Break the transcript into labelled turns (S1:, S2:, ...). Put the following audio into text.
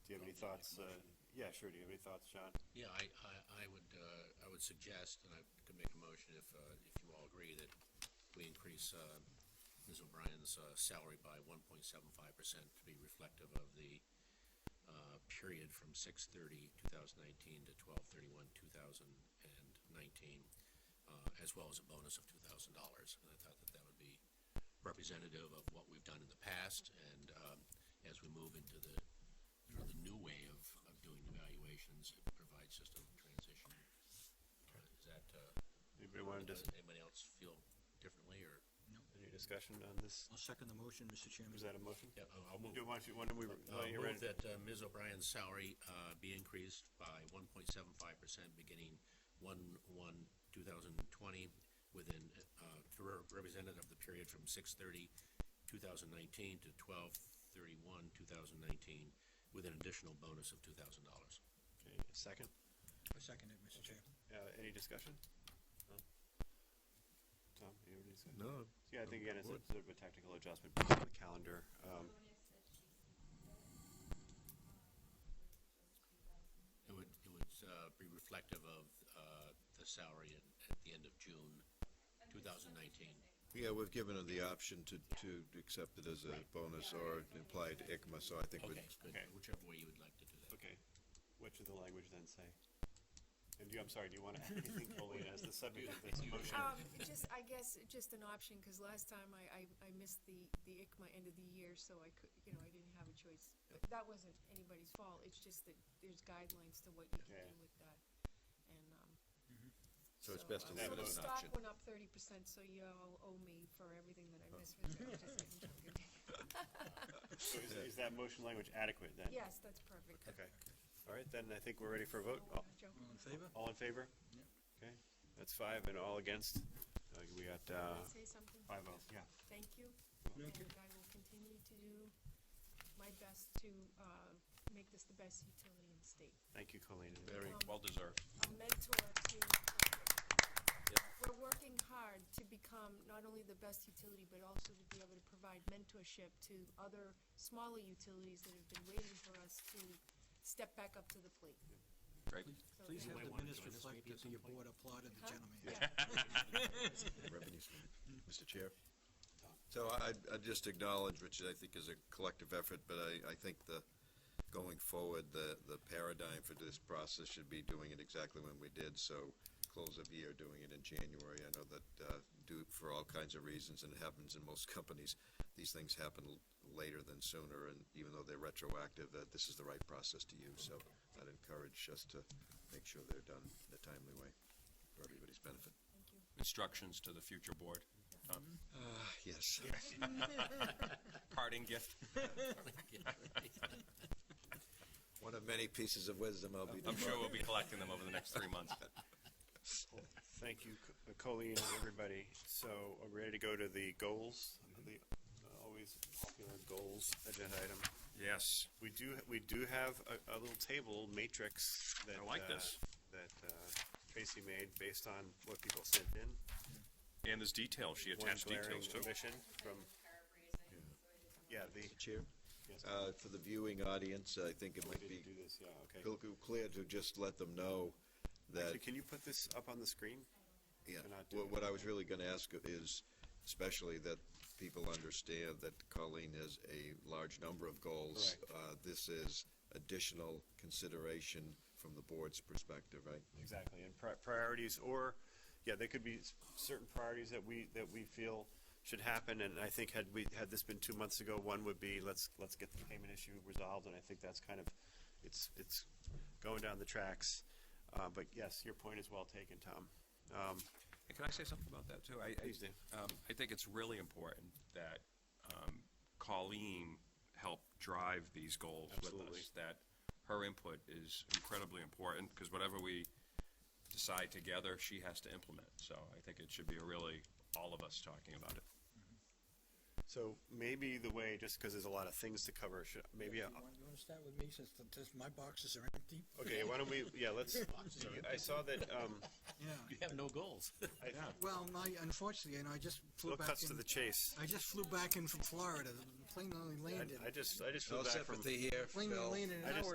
S1: any thoughts, uh, yeah, sure, do you have any thoughts, John?
S2: Yeah, I, I, I would, uh, I would suggest, and I could make a motion if, uh, if you all agree, that we increase, uh, Ms. O'Brien's, uh, salary by one point seven five percent to be reflective of the, uh, period from six thirty, two thousand nineteen to twelve thirty-one, two thousand and nineteen, uh, as well as a bonus of two thousand dollars. And I thought that that would be representative of what we've done in the past, and, um, as we move into the, you know, the new way of, of doing evaluations, it provides just a transition. Uh, Is that, uh,
S1: Anybody want to,
S2: does
S1: dis-
S2: anybody else feel differently, or?
S1: any discussion on this?
S3: I'll second the motion, Mr. Chairman.
S1: Is that a motion?
S2: Yeah, I'll move.
S1: Do, why don't you, why don't we, while
S2: Uh,
S1: you're
S2: move
S1: ready,
S2: that uh, Ms. O'Brien's salary, uh, be increased by one point seven five percent beginning one, one, two thousand twenty, within, uh, to re- representative of the period from six thirty, two thousand nineteen to twelve thirty-one, two thousand nineteen, with an additional bonus of two thousand dollars.
S1: okay, a second,
S3: I second it, Mr. Chair.
S1: uh, any discussion? No? Tom, you have any discussion?
S4: No,
S1: Yeah, I think again, it's a
S4: Would.
S1: sort of a technical adjustment based on the calendar, um,
S2: It would, it would, uh, be reflective of, uh, the salary at, at the end of June, two thousand nineteen.
S4: yeah, we've given her the option to, to accept it as a bonus or implied ICMA, so I think we,
S2: Okay, good,
S1: Okay.
S2: whichever way you would like to do that.
S1: okay. What should the language then say? And do, you- I'm sorry, do you want to, I think, Colleen, as the subject of this motion?
S5: Um, just, I guess, just an option, because last time I, I, I missed the, the ICMA end of the year, so I could, you know, I didn't have a choice. But that wasn't anybody's fault, it's just that there's guidelines to what you can
S1: Yeah.
S5: do with that, and, um.
S4: So it's best to
S5: uh,
S1: leave it
S5: so
S1: as
S4: an
S5: the
S4: option.
S5: stock went up thirty percent, so you all owe me for everything that I missed with it, just getting drunk again.
S1: So is, is that motion language adequate then?
S5: Yes, that's perfect.
S1: Okay, all right, then I think we're ready for a vote. Oh, All-
S5: Joe.
S3: All in favor?
S1: All in favor?
S3: Yep.
S1: Okay, that's five and all against. Uh, We got, uh,
S5: Say something.
S1: five oh, yeah.
S5: thank you.
S3: Yeah,
S5: And
S3: okay.
S5: I will continue to do my best to, uh, make this the best utility in the state.
S1: Thank you, Colleen.
S5: Very
S1: well deserved.
S5: A mentor to, uh, we're working hard to become not only the best utility, but also to be able to provide mentorship to other smaller utilities that have been waiting for us to step back up to the plate.
S6: Great.
S5: So
S3: Please
S5: thank
S3: have
S5: you.
S3: the
S2: wanna
S3: minutes
S2: join us
S3: reflect
S2: maybe at
S3: that
S2: some
S3: your
S2: point?
S3: board applauded the
S5: Huh?
S3: gentleman.
S5: Yeah.
S4: revenue stream. Mr. Chair? So I, I'd- I'd just acknowledge, which I think is a collective effort, but I, I think the, going forward, the, the paradigm for this process should be doing it exactly when we did, so close of year, doing it in January. I know that, uh, due for all kinds of reasons, and it happens in most companies, these things happen l- later than sooner, and even though they're retroactive, that this is the right process to use, so I'd encourage us to make sure they're done in a timely way for everybody's benefit.
S6: Instructions to the future board. Tom.
S4: Yes.
S6: Parting gift.
S4: One of many pieces of wisdom I'll be.
S6: I'm sure we'll be collecting them over the next three months.
S1: Thank you, Co- uh, Colleen and everybody. So are we ready to go to the goals, the uh, always popular goals agenda item?
S6: Yes.
S1: We do, we do have a, a little table matrix that.
S6: I like
S1: uh,
S6: this.
S1: That uh, Tracy made based on what people sent in.
S6: And there's details. She
S1: One
S6: attached
S1: glaring
S6: details too.
S1: omission from, yeah, the.
S4: Chair,
S1: yes,
S4: uh, for the viewing audience, I think it
S1: we
S4: might
S1: didn't
S4: be
S1: Do this, yeah, okay.
S4: clear to just let them know that,
S1: Actually, can you put this up on the screen?
S4: yeah,
S1: cannot do
S4: what,
S1: it.
S4: what I was really gonna ask is especially that people understand that Colleen has a large number of goals.
S1: Correct.
S4: Uh, this is additional consideration from the board's perspective, right?
S1: Exactly, and pri- priorities, or, yeah, they could be s- certain priorities that we, that we feel should happen, and I think had we, had this been two months ago, one would be, let's, let's get the payment issue resolved, and I think that's kind of, it's, it's going down the tracks. Uh, but yes, your point is well taken, Tom. Um,
S6: And can I say something about that too? I,
S1: Please do.
S6: I, um, I think it's really important that, um, Colleen helped drive these goals with
S1: Absolutely.
S6: us. That her input is incredibly important because whatever we decide together, she has to implement. So I think it should be a really all of us talking about it.
S1: so maybe the way, just because there's a lot of things to cover, should, maybe,
S5: uh,
S1: uh,
S3: You
S1: a-
S3: want to start with me since the- this- my boxes are empty?
S1: okay, why don't we, yeah, let's, I saw that, um,
S3: Yeah.
S2: You have no goals.
S1: I-
S3: Well, my, unfortunately, you know, I just flew
S1: Bill
S3: back
S1: cuts to
S3: in,
S1: the chase.
S3: I just flew back in from Florida. The plane only landed,
S1: I, I just, I just
S4: No
S1: flew back from.
S4: sympathy here,
S3: plane only landed
S1: I
S3: an
S1: just-
S3: hour